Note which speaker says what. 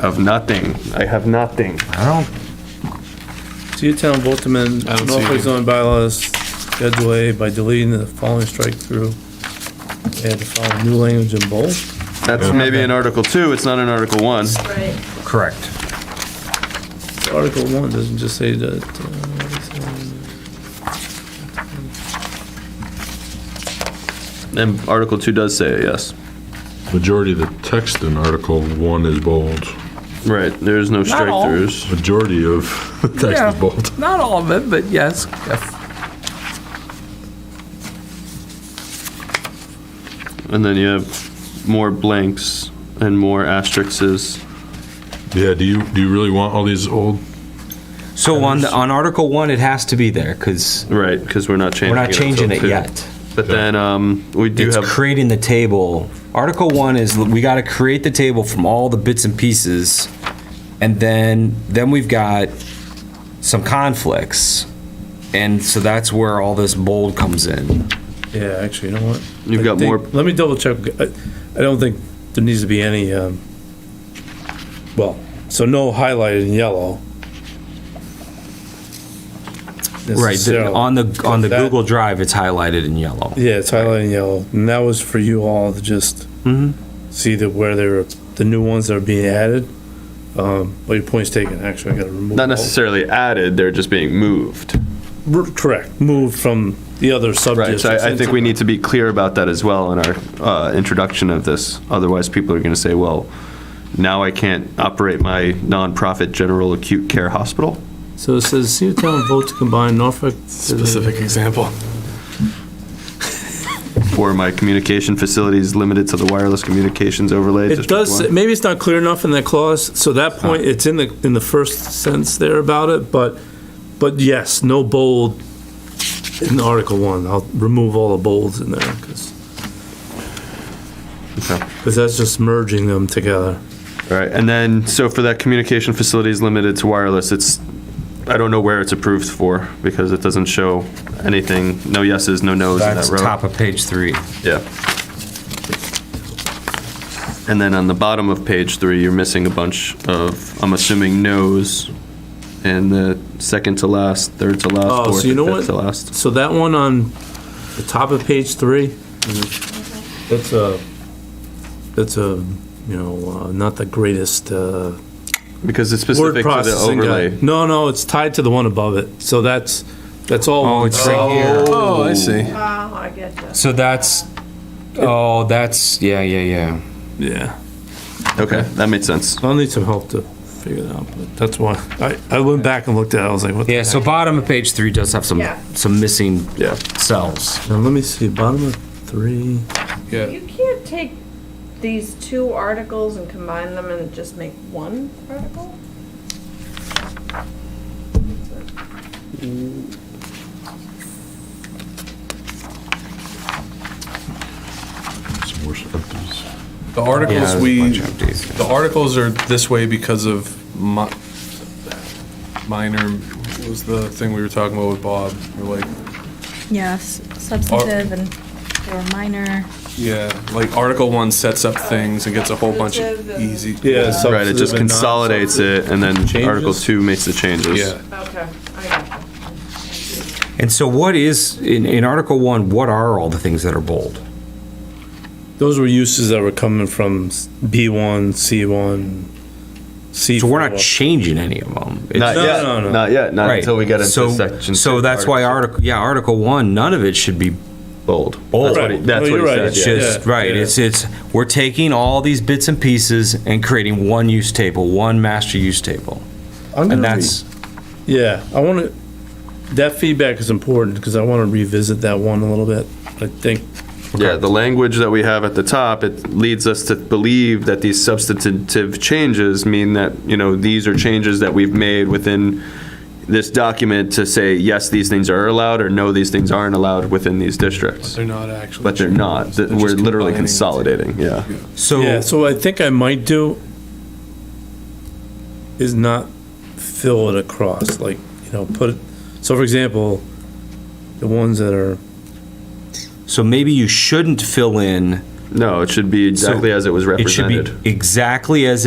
Speaker 1: of nothing. I have nothing.
Speaker 2: I
Speaker 3: So your town vote to amend
Speaker 1: I don't see
Speaker 3: Norfolk
Speaker 1: anything.
Speaker 3: zoning bylaws Schedule A by deleting the following strike through. Add the following new language in bold.
Speaker 1: That's maybe in Article Two, it's not in Article One.
Speaker 4: Right.
Speaker 2: don't, correct.
Speaker 3: Article one doesn't just say that. uh, it's, um,
Speaker 1: And Article Two does say it, yes.
Speaker 5: Majority of the text in Article 1 is bold.
Speaker 1: Right, there's no strike
Speaker 6: all.
Speaker 1: throughs.
Speaker 5: Majority of the text
Speaker 6: Yeah.
Speaker 5: is bold.
Speaker 6: Not all of it, but yes. if-
Speaker 1: And then you have more blanks and more asterisks.
Speaker 5: Yeah, do you, do you really want all these old?
Speaker 2: So on, the- on Article 1, it has to be there, because
Speaker 1: Right, because we're not changing
Speaker 2: we're
Speaker 1: it.
Speaker 2: not
Speaker 1: until
Speaker 2: changing it
Speaker 1: two.
Speaker 2: yet.
Speaker 1: But then, um, we do
Speaker 2: It's
Speaker 1: have,
Speaker 2: creating the table. Article 1 is, we gotta create the table from all the bits and pieces, and then, then we've got some conflicts. And so that's where all this bold comes in.
Speaker 3: uh, Yeah, actually, you know what?
Speaker 1: You've
Speaker 3: I
Speaker 1: got
Speaker 3: think-
Speaker 1: more-
Speaker 3: Let me double check. I I don't think there needs to be any, um, well, so no highlighted in yellow.
Speaker 2: Right, the-
Speaker 3: Necessarily.
Speaker 2: on the, on the
Speaker 3: That-
Speaker 2: Google Drive, it's highlighted in yellow.
Speaker 3: Yeah, it's highlighted in yellow, and that was for you all to just
Speaker 2: Mhm.
Speaker 1: Mm-hmm.
Speaker 3: see that where they're, the new ones that are being added. Um, but your point's taken, actually, I gotta remove.
Speaker 1: not
Speaker 3: all-
Speaker 1: necessarily added, they're just being moved.
Speaker 3: R- Correct, moved from the other
Speaker 1: Right,
Speaker 3: subjects.
Speaker 1: so I, I think we need to be clear about that as well in our, uh, introduction of this. Otherwise, people are gonna say, well, now I can't operate my nonprofit general acute care hospital?
Speaker 3: So it says, see the town vote to combine Norfolk. Specific
Speaker 7: example.
Speaker 1: Or my communication facilities limited to the wireless communications overlay?
Speaker 3: It
Speaker 1: District
Speaker 3: does,
Speaker 1: One? Ah.
Speaker 3: maybe it's not clear enough in that clause, so that point, it's in the, in the first sentence there about it, but, but yes, no bold in Article One, I'll remove all the bolds in there, because,
Speaker 1: Okay.
Speaker 3: because that's just merging them together.
Speaker 1: All right, and then, so for that communication facilities limited to wireless, it's, I don't know where it's approved for, because it doesn't show anything, no yeses, no nos in that
Speaker 2: That's
Speaker 1: row.
Speaker 2: top of page 3.
Speaker 1: Yeah. And then on the bottom of page three, you're missing a bunch of, I'm assuming, no's and the second to last, third to last,
Speaker 3: Oh,
Speaker 1: fourth,
Speaker 3: so you know
Speaker 1: and
Speaker 3: what?
Speaker 1: fifth to last.
Speaker 3: So that one on the top of page three,
Speaker 1: Mm-hmm.
Speaker 3: that's a, that's a, you know, uh, not the greatest, uh,
Speaker 1: Because it's
Speaker 3: word
Speaker 1: specific to the
Speaker 3: processing guy.
Speaker 1: overlay.
Speaker 3: No, no, it's tied to the one above it, so that's, that's all.
Speaker 2: Oh,
Speaker 3: one.
Speaker 2: it's right here.
Speaker 7: Oh, I see.
Speaker 4: Wow, I get that.
Speaker 2: So that's, oh, that's, yeah, yeah, yeah.
Speaker 3: Yeah,
Speaker 1: Okay, that makes sense.
Speaker 3: I'll need some help to figure that out, but that's why, I, I went back and looked at it, I was like, what the
Speaker 2: Yeah, so
Speaker 3: heck?
Speaker 2: bottom of page three does have some,
Speaker 4: Yeah.
Speaker 2: some missing
Speaker 1: Yeah.
Speaker 2: cells.
Speaker 3: Now, let me see, bottom of three,
Speaker 4: You can't take these two articles and combine them and just make one article?
Speaker 5: Some more empties.
Speaker 7: The articles we, the articles are this way because of mi- minor, what was the thing we were talking about with Bob? We're like,
Speaker 8: Yes, substantive and or minor.
Speaker 7: yeah, like Article One sets up things and gets a whole bunch of easy.
Speaker 3: Yeah, so-
Speaker 1: Right, it just
Speaker 3: Substantive and
Speaker 1: consolidates it and then
Speaker 3: Changes?
Speaker 1: Article two makes the changes.
Speaker 7: Yeah,
Speaker 4: Okay, I got you.
Speaker 2: And so what is, in, in Article One, what are all the things that are bold?
Speaker 3: those were uses that were coming from B one, C one, C
Speaker 2: So
Speaker 3: four.
Speaker 2: we're not changing any of them. It's-
Speaker 1: Not
Speaker 3: No,
Speaker 1: yet,
Speaker 3: no, no.
Speaker 1: not yet, not
Speaker 2: Right.
Speaker 1: until we get into
Speaker 2: So-
Speaker 1: section.
Speaker 2: So
Speaker 1: two,
Speaker 2: that's why Article, yeah, Article One, none of it should be
Speaker 1: Bold.
Speaker 2: bold.
Speaker 1: That's what he-
Speaker 3: Right.
Speaker 1: that's
Speaker 3: No,
Speaker 1: what
Speaker 3: you're
Speaker 1: he
Speaker 3: right.
Speaker 1: said,
Speaker 2: It's
Speaker 1: yeah.
Speaker 2: just,
Speaker 3: yeah,
Speaker 2: right,
Speaker 3: yeah.
Speaker 2: it's, it's, we're taking all these bits and pieces and creating one use table, one master use table. And that's,
Speaker 3: Yeah, I want to, that feedback is important because I want to revisit that one a little bit. I think,
Speaker 1: Yeah, the language that we have at the top, it leads us to believe that these substantive changes mean that, you know, these are changes that we've made within this document to say, yes, these things are allowed, or no, these things aren't allowed within these districts.
Speaker 7: they're not actually.
Speaker 1: But they're not, that
Speaker 7: They're
Speaker 1: we're
Speaker 7: just
Speaker 1: literally
Speaker 7: combining.
Speaker 1: consolidating, yeah.
Speaker 3: yeah,
Speaker 2: so,
Speaker 3: so I think I might do is not fill it across, like, you know, put, it. so for example, the ones that are,
Speaker 2: so maybe you shouldn't fill in,
Speaker 1: No, it should be exactly as it was
Speaker 2: it should
Speaker 1: represented.
Speaker 2: be exactly as it